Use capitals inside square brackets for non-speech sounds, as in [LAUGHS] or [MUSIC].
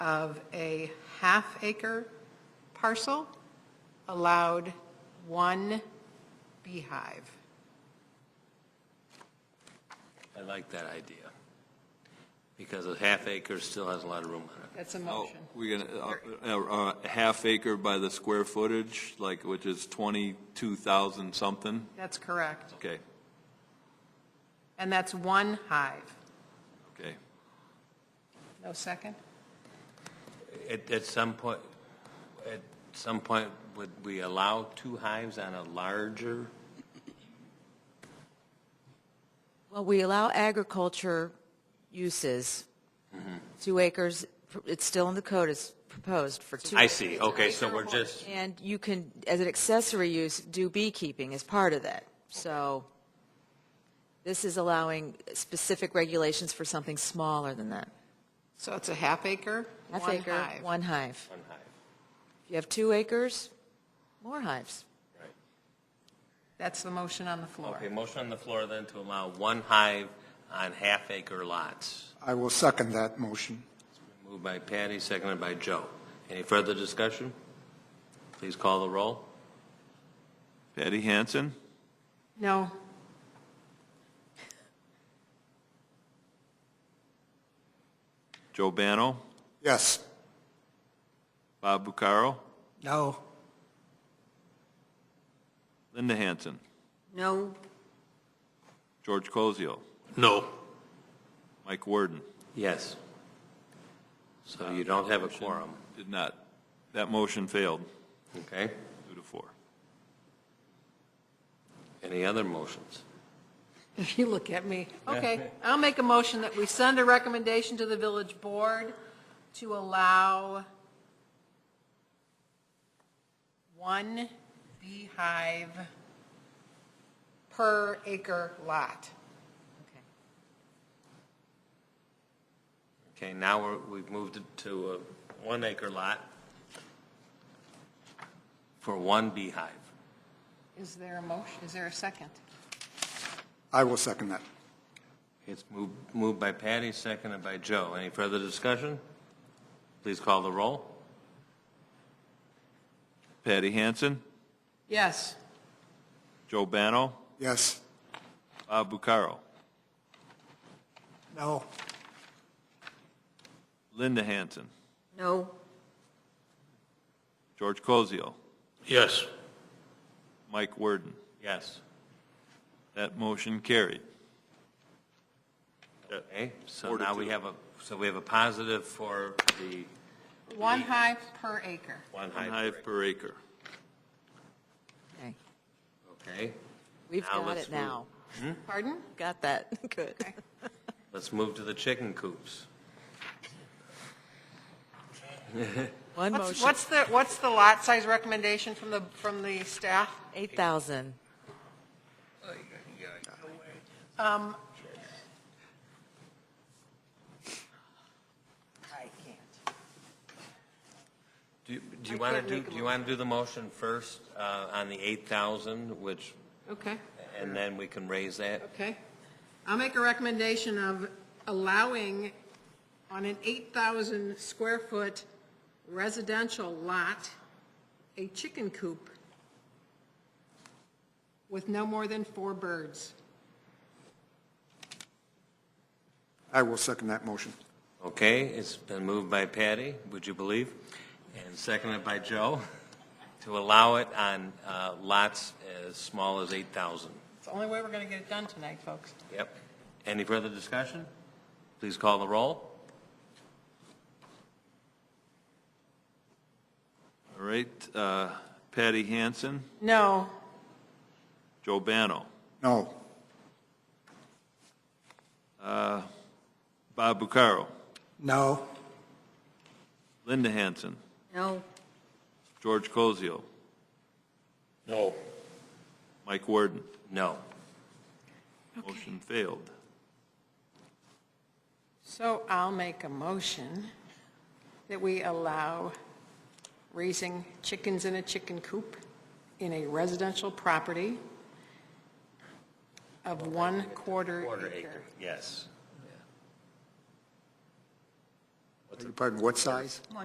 of a half-acre parcel allowed one beehive. I like that idea, because a half acre still has a lot of room on it. That's a Oh, motion. We're gonna, uh, uh, a half acre by the square footage, like, which is 22,000 something? That's correct. Okay, And that's one hive. okay. No second? At, at some point, at some point, would we allow two hives on a larger? Well, we allow agriculture uses. Mm-hmm. Two acres, it's still in the code, it's proposed for two. I see, okay, so we're just, And you can, as an accessory use, do beekeeping as part of that. So this is allowing specific regulations for something smaller than that. So it's a half acre, Half one acre, hive. one hive. one hive, If you have two acres, more hives. right. That's the motion on the floor. Okay, motion on the floor then to allow one hive on half acre lots. I will second that motion. Moved by Patty, seconded by Joe. Any further discussion? Please call the roll. Patty Hansen? No, Joe Bano? Yes. Bob Bucaro? No. Linda Hansen? no, George Cosio? No. Mike Warden? Yes. So you don't have a quorum, Did not. That motion failed, okay? two to four. Any other motions? If you look at me. Okay, I'll make a motion that we send a recommendation to the village board to allow one beehive per acre lot. Okay. Okay, now we're, we've moved it to a one acre lot for one beehive. Is there a motion, is there a second? I will second that. It's moved, moved by Patty, seconded by Joe. Any further discussion? Please call the roll. Patty Hansen? Yes, Joe Bano? Yes. Bob Bucaro? No. Linda Hansen? No. George Cosio? Yes. Mike Warden? Yes. That motion carried. Okay, so Four to now we two. have a, so we have a positive for the one hive per acre. one One hive. hive per acre. Okay. Okay, We've Now got let's it now. Pardon? Got that. [LAUGHS] Good. let's move to the chicken coops. One What's, motion, what's the, what's the lot size recommendation from the, from the staff? 8,000. Um, Do you- do you I want to can't do, make a do you want to do the motion first uh, on the 8,000, which, okay. and then we can raise that? Okay. I'll make a recommendation of allowing on an 8,000 square foot residential lot, a chicken coop with no more than four birds. I will second that motion. Okay, it's been moved by Patty, would you believe? And seconded by Joe, to allow it on uh, lots as small as 8,000. It's the only way we're going to get it done tonight, folks. Yep. Any further discussion? Please call the roll. All right, uh, Patty Hansen, No. Joe Bano, No. Bob Bucaro, No. Linda Hansen, No. George Cosio, No. Mike Warden. No. Motion failed. So I'll make a motion that we allow raising chickens in a chicken coop in a residential property of one quarter Quarter acre. acre, yes. Pardon, what size?